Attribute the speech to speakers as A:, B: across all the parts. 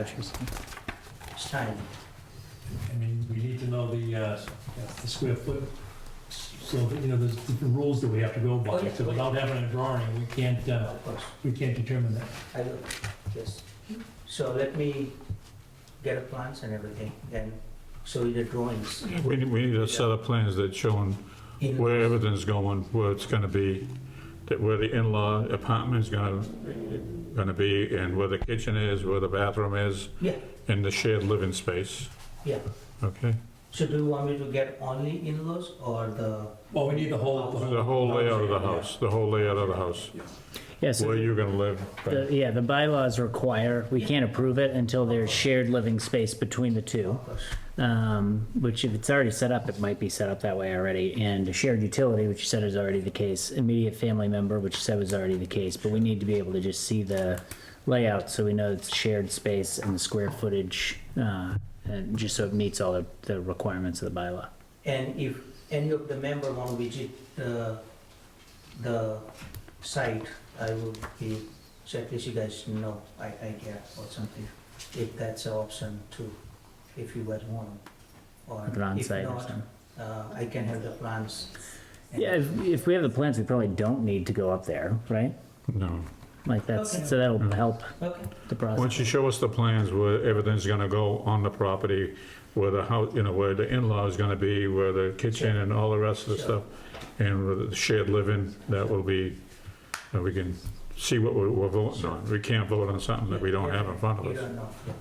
A: Interesting.
B: It's tiny.
C: I mean, we need to know the, uh, the square foot. So, you know, there's different rules that we have to go
B: Oh,
C: by,
B: yeah.
C: so without having a drawing, we can't, uh,
B: Of course,
C: we can't determine that.
B: I will, yes. So let me get a plans and everything, then show you the drawings.
D: We need, we need a set of plans that showing
B: In-
D: where everything's going, where it's gonna be, that where the in-law apartment's gonna, gonna be, and where the kitchen is, where the bathroom is,
B: Yeah,
D: and the shared living space,
B: yeah.
D: okay?
B: So do you want me to get only in-laws or the,
C: Well, we need the whole.
D: The whole layout of the house, the whole layout of the house,
A: Yeah, so
D: where
A: the-
D: you're gonna live.
A: the, yeah, the bylaws require, we can't approve it until there's shared living space between the two.
B: of course,
A: Um, which if it's already set up, it might be set up that way already. And a shared utility, which you said is already the case, immediate family member, which you said was already the case, but we need to be able to just see the layout so we know it's shared space and the square footage, uh, and just so it meets all the, the requirements of the bylaw.
B: and if any of the member want to visit the, the site, I will be, so at least you guys know, I, I get or something, if that's an option too, if you guys want. Or
A: Like an on
B: if
A: site or
B: not,
A: something.
B: uh, I can have the plans. and-
A: Yeah, if, if we have the plans, we probably don't need to go up there, right?
D: No.
A: Like
B: Okay.
A: that's, so that'll help
B: Okay,
A: the process.
D: Once you show us the plans where everything's gonna go on the property, where the house, you know, where the in-law is gonna be, where the kitchen and all the rest of the
B: Sure.
D: stuff, and with the shared living, that will be, and we can see what we're, we're voting on. We can't vote on something that we don't have in front
B: you
D: of us. Hmm?
B: don't know, yeah.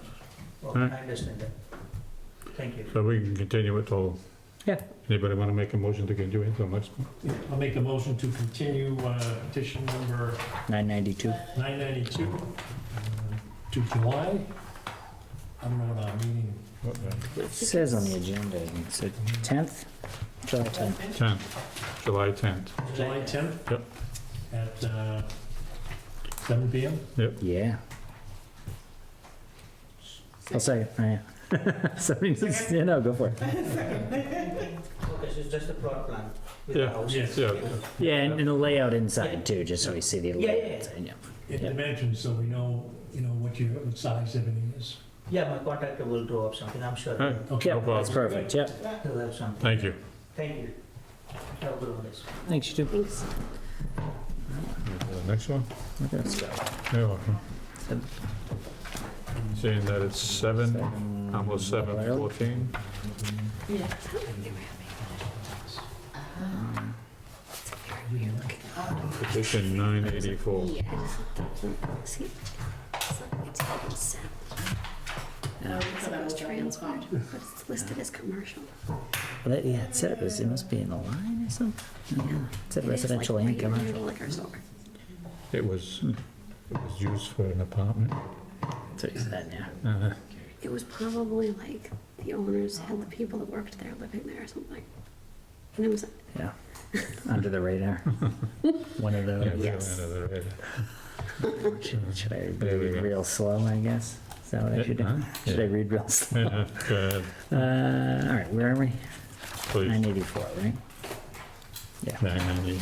B: Well,
D: Alright.
B: I understand that. Thank you.
D: So we can continue it till.
A: Yeah.
D: Anybody wanna make a motion to continue until next? one?
C: I'll make a motion to continue uh, petition number
A: Nine ninety-two.
C: nine ninety-two uh, to July. I don't know what our meeting,
A: It says on the agenda, I think, so tenth, July tenth.
D: 10th, July 10th.
C: July tenth?
D: Yep.
C: At, uh, seven P M?
A: Yeah. I'll say, it, oh, yeah. Somebody needs, yeah, no, go for it.
B: Okay, so it's just a plot plan with the
D: Yeah,
B: house?
C: yes,
D: yeah.
A: Yeah, and, and the layout inside too, just so we see the
B: Yeah, yeah,
A: layout
B: yeah.
A: inside, yeah.
C: It
A: Yeah.
C: dimensions, so we know, you know, what your, what size everything is.
B: Yeah, my contractor will draw up something, I'm sure.
D: Alright.
C: Okay.
A: Yeah, that's
D: problem.
A: perfect, yeah.
B: He'll have something.
D: Thank you.
B: Thank you. Have a good one, guys.
A: Thanks, you too.
D: Next one?
A: Okay, let's go.
D: You're welcome.
A: Seven.
D: Seeing that it's seven, almost seven fourteen. Petition nine eighty-four.
E: was transferred, but it's listed as commercial.
A: Well, that- Yeah, it said it was, it must be in the line or something. Yeah, It said
E: It is like
A: residential and
E: regular
A: commercial.
E: Liquor store.
D: It was, it was used for an apartment.
A: That's what you said, yeah.
D: Uh,
E: It was probably like the owners had the people that worked there living there or something. And it was,
A: Yeah. Under the radar. One of
D: yeah, we
A: those.
E: Yes.
D: went under the Uh,
A: Should I
D: There we
A: read
D: go.
A: real slow, I guess? Is that what I should
D: Huh?
A: do? Should I
D: Yeah. uh-huh.
A: read real slow?
D: radar. Yeah, Go ahead,
A: Uh, all right, where are we?
D: please.
A: 984, right?
D: Nine ninety.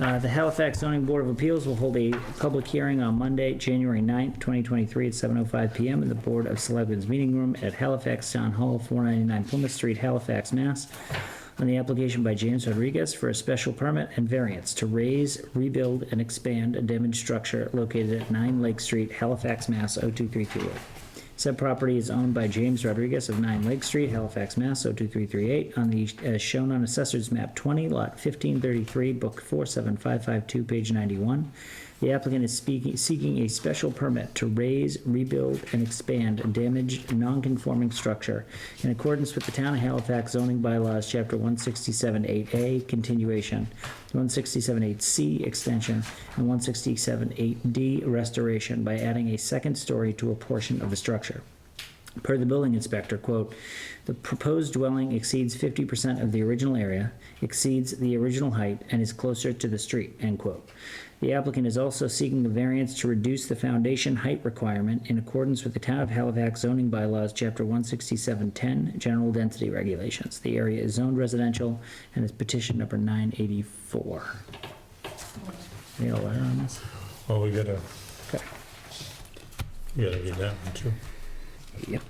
A: Uh, The Halifax zoning board of appeals will hold a public hearing on Monday, January 9th, 2023 at 7:05 PM in the Board of Selectmen's Meeting Room at Halifax Town Hall, 499 Plymouth Street, Halifax, Mass. On the application by James Rodriguez for a special permit and variance to raise, rebuild, and expand a damaged structure located at 9 Lake Street, Halifax, Mass. 02328. Said property is owned by James Rodriguez of 9 Lake Street, Halifax, Mass. 02338, on the, as shown on Assessor's Map 20, Lot 1533, Book 47552, page 91. The applicant is speaking, seeking a special permit to raise, rebuild, and expand a damaged, non-conforming structure in accordance with the Town of Halifax zoning bylaws, Chapter 167-8A, continuation, 167-8C, extension, and 167-8D, restoration, by adding a second story to a portion of the structure. Per the building inspector, quote, "The proposed dwelling exceeds 50% of the original area, exceeds the original height, and is closer to the street," end quote. The applicant is also seeking a variance to reduce the foundation height requirement in accordance with the Town of Halifax zoning bylaws, Chapter 16710, General Density Regulations. The area is zoned residential and is petition number 984. Any alert on this?
D: Oh, we gotta,
A: Okay.
D: we gotta get that one too.
A: Yep.